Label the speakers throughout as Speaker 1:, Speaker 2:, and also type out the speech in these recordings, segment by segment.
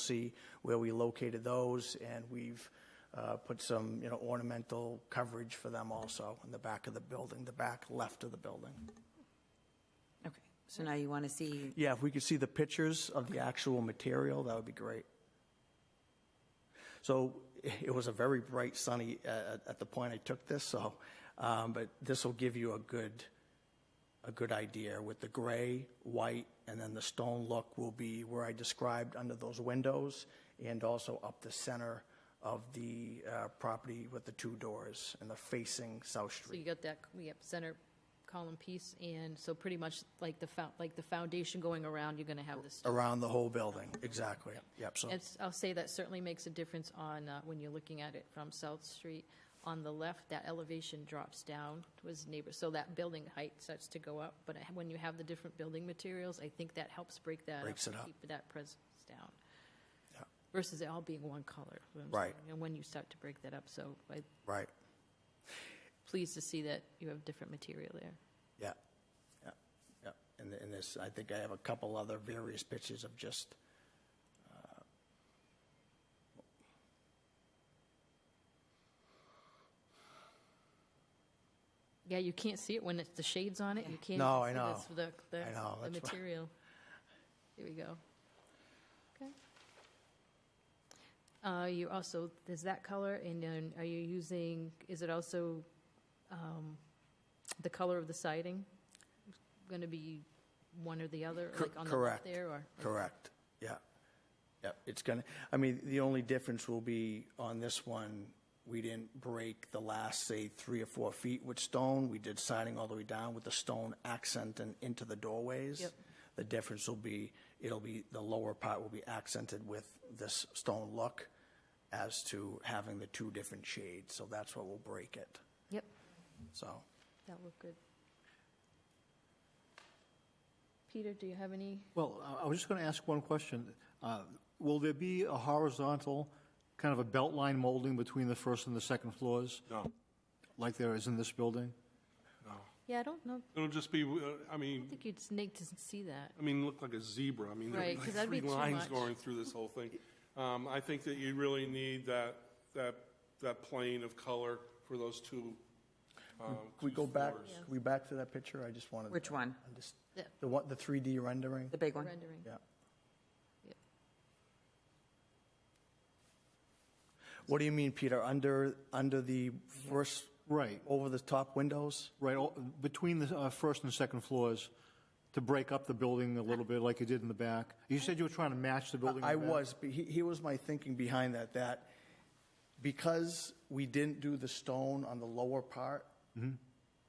Speaker 1: see where we located those, and we've uh, put some, you know, ornamental coverage for them also in the back of the building, the back left of the building.
Speaker 2: Okay, so now you want to see,
Speaker 1: Yeah, if we could see the pictures of the actual material, that would be great. So it was a very bright sunny uh, at the point I took this, so, um, but this will give you a good, a good idea with the gray, white, and then the stone look will be where I described under those windows and also up the center of the uh, property with the two doors and the facing South
Speaker 3: So you
Speaker 1: Street.
Speaker 3: got that, we have center column piece, and so pretty much like the, fou- like the foundation going around, you're going to have this.
Speaker 1: Around the whole building, exactly. Yep, so,
Speaker 3: It's- I'll say that certainly makes a difference on, uh, when you're looking at it from South Street. On the left, that elevation drops down towards neighbor, so that building height starts to go up. But I- when you have the different building materials, I think that helps break that.
Speaker 1: Breaks it up.
Speaker 3: Keep that presence down.
Speaker 1: Yeah.
Speaker 3: Versus it all being one color. is what I'm
Speaker 1: Right.
Speaker 3: saying, And when you start to break that up, so I'm
Speaker 1: right,
Speaker 3: pleased to see that you have different material there.
Speaker 1: yeah, yeah, yeah. And th- and this, I think I have a couple other various pictures of just,
Speaker 3: Yeah, you can't see it when it's the shades on it. You can't.
Speaker 1: No,
Speaker 3: even
Speaker 1: I
Speaker 3: see this- The, the,
Speaker 1: I know,
Speaker 3: the
Speaker 1: that's why-
Speaker 3: material. Here we go. Okay. Uh, you also there's that color, and then are you using? Is it also um, the color of the siding? Going to be one or the other,
Speaker 1: Cor-
Speaker 3: like on
Speaker 1: correct.
Speaker 3: the left there, or
Speaker 1: correct, yeah. Yeah, it's gonna, I mean, the only difference will be on this one, we didn't break the last, say, three or four feet with stone. We did siding all the way down with the stone accent and into the doorways.
Speaker 3: Yep.
Speaker 1: The difference will be, it'll be, the lower part will be accented with this stone look as to having the two different shades, so that's what will break it,
Speaker 3: yep,
Speaker 1: so.
Speaker 3: that look good. Peter, do you have any?
Speaker 4: Well, I- I was just going to ask one question. Uh, Will there be a horizontal, kind of a belt line molding between the first and the second floors?
Speaker 5: No,
Speaker 4: Like there is in this building?
Speaker 5: no.
Speaker 3: Yeah, I don't know.
Speaker 5: It'll just be, uh, I
Speaker 3: I
Speaker 5: mean,
Speaker 3: think you'd snake to see that.
Speaker 5: I mean, look like a zebra. I mean,
Speaker 3: Right,
Speaker 5: there'd
Speaker 3: 'cause
Speaker 5: be like
Speaker 3: that'd be
Speaker 5: three
Speaker 3: too
Speaker 5: lines
Speaker 3: much.
Speaker 5: going through this whole thing. Um, I think that you really need that, that, that plane of color for those two. um,
Speaker 1: Can we
Speaker 5: two
Speaker 1: go back,
Speaker 5: floors.
Speaker 1: can we back to that picture? I just wanted.
Speaker 2: Which one?
Speaker 1: I'm just-
Speaker 3: Yeah.
Speaker 1: The one, the 3D rendering?
Speaker 2: the big one?
Speaker 3: Rendering.
Speaker 1: Yeah.
Speaker 3: Yep.
Speaker 1: What do you mean, Peter? Under, under the first,
Speaker 4: Right,
Speaker 1: over the top windows?
Speaker 4: right, all- between the uh, first and second floors, to break up the building a little bit like you did in the back? You said you were trying to match the building. in
Speaker 1: I
Speaker 4: the back.
Speaker 1: was, but he, he was my thinking behind that, that because we didn't do the stone on the lower part,
Speaker 4: Mm-hmm.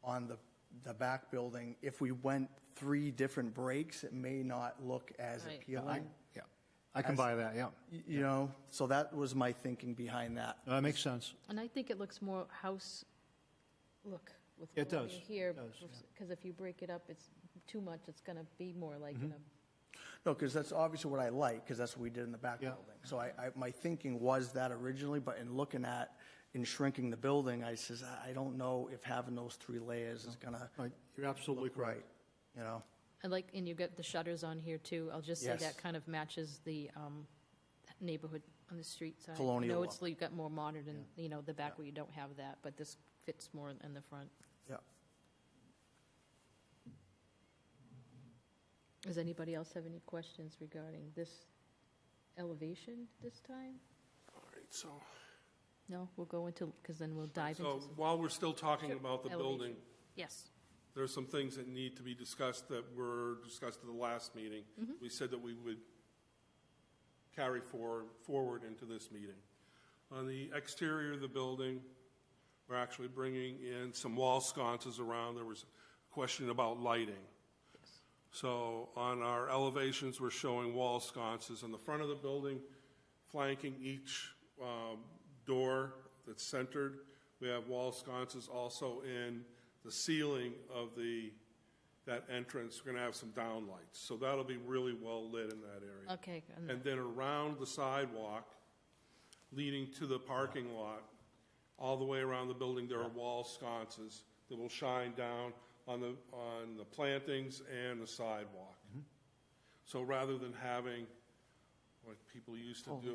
Speaker 1: on the, the back building, if we went three different breaks, it may not look as
Speaker 3: Right.
Speaker 1: appealing,
Speaker 4: Yeah, I can buy that, yeah.
Speaker 1: y- you know? So that was my thinking behind that.
Speaker 4: No, That makes sense.
Speaker 3: And I think it looks more house look with
Speaker 4: It
Speaker 3: what we
Speaker 4: does,
Speaker 3: here.
Speaker 4: it does, yeah.
Speaker 3: Because if you break it up, it's too much, it's going to be more like,
Speaker 4: Mm-hmm.
Speaker 3: in a-
Speaker 1: No, because that's obviously what I like, because that's what we did in the back
Speaker 4: Yeah.
Speaker 1: building. So I, I, my thinking was that originally, but in looking at, in shrinking the building, I says, I- I don't know if having those three layers is gonna
Speaker 4: Right, You're absolutely
Speaker 1: look
Speaker 4: correct.
Speaker 1: right, you know?
Speaker 3: I like, and you get the shutters on here too. I'll just say
Speaker 1: Yes.
Speaker 3: that kind of matches the um, neighborhood on the street side.
Speaker 1: Colonial
Speaker 3: No, it's,
Speaker 1: look.
Speaker 3: you've got more modern and, you know, the back where you don't have that, but this fits more in- in the front.
Speaker 1: Yeah.
Speaker 3: Does anybody else have any questions regarding this elevation this time?
Speaker 5: All right, so,
Speaker 3: No, we'll go into, because then we'll dive into.
Speaker 5: so
Speaker 3: some-
Speaker 5: while we're still talking about the
Speaker 3: elevation.
Speaker 5: building,
Speaker 3: Yes.
Speaker 5: there are some things that need to be discussed that were discussed at the last meeting.
Speaker 3: Mm-hmm.
Speaker 5: We said that we would carry for, forward into this meeting. On the exterior of the building, we're actually bringing in some wall sconces around. There was a question about lighting. So on our elevations, we're showing wall sconces in the front of the building, flanking each um, door that's centered. We have wall sconces also in the ceiling of the, that entrance. We're going to have some downlights. So that'll be really well lit in that area.
Speaker 3: Okay, and-
Speaker 5: And then around the sidewalk leading to the parking lot, all the way around the building, there are wall sconces that will shine down on the, on the plantings and the sidewalk. So rather than having like people used to do.